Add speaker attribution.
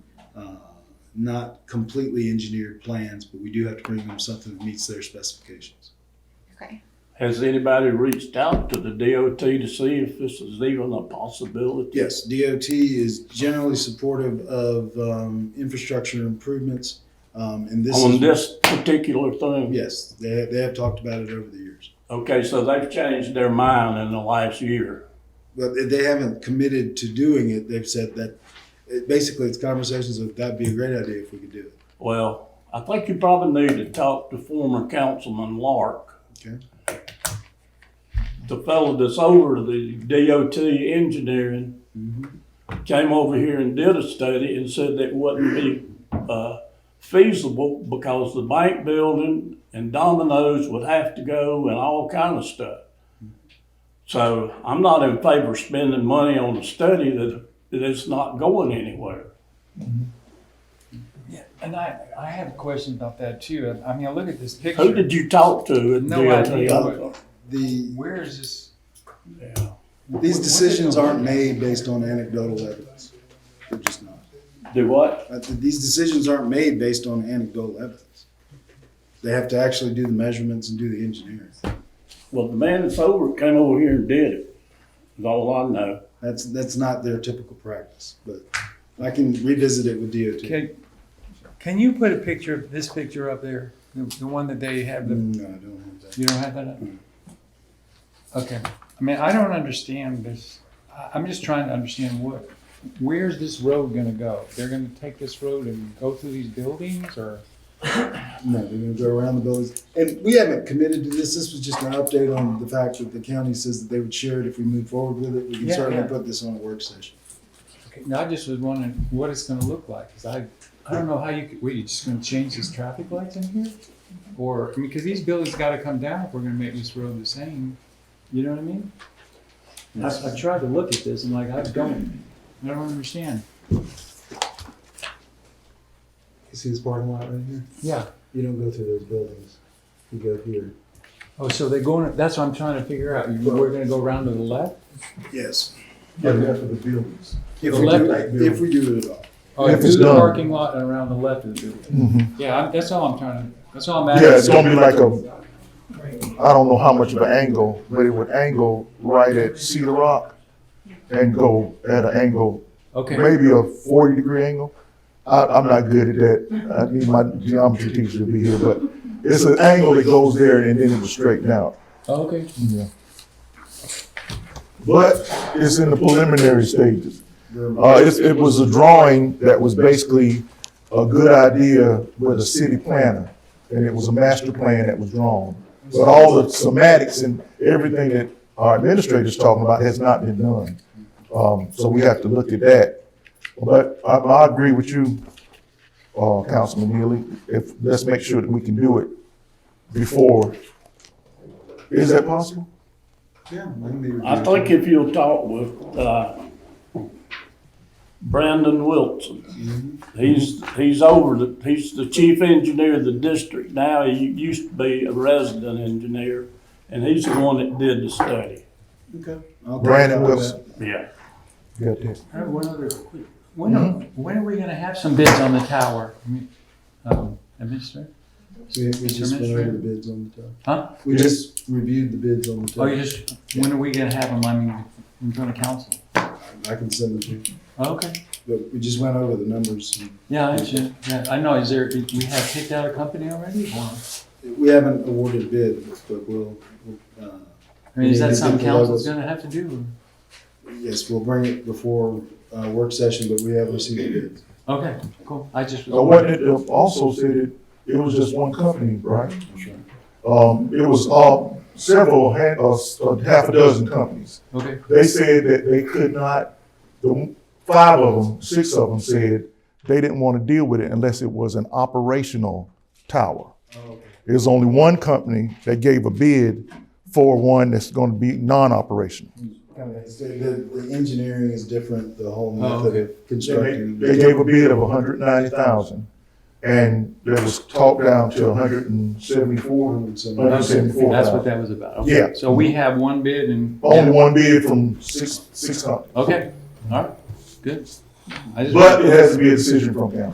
Speaker 1: uh, not completely engineered plans, but we do have to bring them something that meets their specifications.
Speaker 2: Okay.
Speaker 3: Has anybody reached out to the DOT to see if this is even a possibility?
Speaker 1: Yes, DOT is generally supportive of um, infrastructure improvements, um, and this
Speaker 3: On
Speaker 1: is-
Speaker 3: this particular thing?
Speaker 1: Yes, they they have talked about it over the years,
Speaker 3: Okay, so they've changed their mind in the last year.
Speaker 1: but they- they haven't committed to doing it. They've said that it, basically it's conversations of that'd be a great idea if we could do it.
Speaker 3: Well, I think you probably need to talk to former Councilman Lark.
Speaker 1: Okay.
Speaker 3: The fellow that's over the DOT engineering came over here and did a study and said that wouldn't be, uh, feasible because the bank building and dominoes would have to go and all kind of stuff. So I'm not in favor of spending money on a study that, that is not going anywhere.
Speaker 4: Yeah, and I, I have a question about that too. I- I mean, I look at this picture.
Speaker 3: Who did you talk to at
Speaker 4: No
Speaker 3: DOT?
Speaker 4: idea.
Speaker 3: also?
Speaker 1: Um, The
Speaker 4: Where is this?
Speaker 3: Yeah.
Speaker 1: these
Speaker 4: What-
Speaker 1: decisions
Speaker 4: what-
Speaker 1: aren't made based on anecdotal evidence. They're just not.
Speaker 3: Do what?
Speaker 1: Uh, th- These decisions aren't made based on anecdotal evidence. They have to actually do the measurements and do the engineering.
Speaker 3: Well, the man that's over came over here and did it. Is all I know.
Speaker 1: That's, that's not their typical practice, but I can revisit it with DOT.
Speaker 4: Can, can you put a picture of this picture up there? The, the one that they have, the,
Speaker 1: Mm, No, I don't have that.
Speaker 4: you don't have that up? Okay. I mean, I don't understand this. I, I'm just trying to understand what, where's this road gonna go? They're gonna take this road and go through these buildings or?
Speaker 1: No, they're gonna go around the buildings. And we haven't committed to this. This was just an update on the fact that the county says that they would share it if we move forward with it. We can
Speaker 4: Yeah,
Speaker 1: certainly
Speaker 4: yeah.
Speaker 1: put this on a work session.
Speaker 4: Okay, now I just was wondering what it's gonna look like, cause I, I don't know how you could, wait, you're just gonna change these traffic lights in here? Or, I mean, cause these buildings gotta come down if we're gonna make this road the same, you know what I mean? I, I tried to look at this and like, I don't, I don't understand.
Speaker 5: You see this parking lot right here?
Speaker 4: Yeah.
Speaker 5: You don't go through those buildings. You go here.
Speaker 4: Oh, so they're going, that's what I'm trying to figure out, You- we're gonna go around to the left?
Speaker 1: Yes.
Speaker 5: Yeah, go through the buildings.
Speaker 1: If
Speaker 4: The
Speaker 1: we do,
Speaker 4: left-
Speaker 1: if we do it at all.
Speaker 4: Oh,
Speaker 5: If
Speaker 4: through
Speaker 5: it's
Speaker 4: the
Speaker 5: done.
Speaker 4: parking lot and around the left of the building? Yeah, I- that's all I'm trying to, that's all I'm asking.
Speaker 6: Yeah, it's gonna be like a, I don't know how much of an angle, but it would angle right at Cedar Rock and go at an angle,
Speaker 4: Okay.
Speaker 6: maybe a forty degree angle. I, I'm not good at that. I need my geometry teacher to be here, but it's an angle that goes there and then it was straightened out.
Speaker 4: Oh, Okay.
Speaker 6: But it's in the preliminary stages. Uh, it, it was a drawing that was basically a good idea with a city planner, and it was a master plan that was drawn. But all the somatics and everything that our administrator's talking about has not been done. Um, so we have to look at that. But I, I agree with you, uh, Councilman Neely, if, let's make sure that we can do it before. Is that possible?
Speaker 1: Yeah. I can be with
Speaker 3: I
Speaker 1: DOT.
Speaker 3: think if you'll talk with, uh, Brandon Wilson, he's, he's over the, he's the chief engineer of the district now. He used to be a resident engineer, and he's the one that did the study.
Speaker 1: Okay. I'll take
Speaker 6: Brandon
Speaker 1: note of
Speaker 6: Wilson.
Speaker 3: Yeah.
Speaker 6: Got that.
Speaker 4: I have one other, when are, when are we gonna have some bids on the tower? I mean, um, Administrator?
Speaker 1: that. We, we just went over the bids on the top.
Speaker 4: Huh?
Speaker 1: We just reviewed the bids on the top.
Speaker 4: Oh, you just, when are we gonna have them, I mean, in front of council?
Speaker 1: I can send them to you.
Speaker 4: Okay,
Speaker 1: But we just went over the numbers. and
Speaker 4: yeah, I, should- yeah, I know, is there, we have picked out a company already? Or-
Speaker 1: We haven't awarded bid, but we'll, we'll, uh,
Speaker 4: I mean, is that something
Speaker 1: Yeah, they did the
Speaker 4: council's
Speaker 1: logos.
Speaker 4: gonna have to do?
Speaker 1: yes, we'll bring it before, uh, work session, but we have received bids.
Speaker 4: Okay, cool, I just. was
Speaker 6: Uh, what it uh, also said it, it was just one company, right? Um, it was, uh, several, ha- uh, s- uh, half a dozen companies.
Speaker 4: Okay,
Speaker 6: They said that they could not, the five of them, six of them said they didn't want to deal with it unless it was an operational tower. There's only one company that gave a bid for one that's going to be non-operational.
Speaker 1: So The, the engineering is different, the whole
Speaker 4: Oh,
Speaker 1: method of
Speaker 6: They
Speaker 1: constructing.
Speaker 6: they gave a bid of hundred ninety thousand, and it was talked down to hundred and seventy-four.
Speaker 1: And so-
Speaker 6: Hundred seventy-four
Speaker 4: that's what
Speaker 6: thousand.
Speaker 4: that was about, okay.
Speaker 6: Yeah.
Speaker 4: So we have one bid and.
Speaker 6: Only one bid from six, six companies,
Speaker 4: Okay, all right, good. I just-
Speaker 6: but it has to be a decision from council.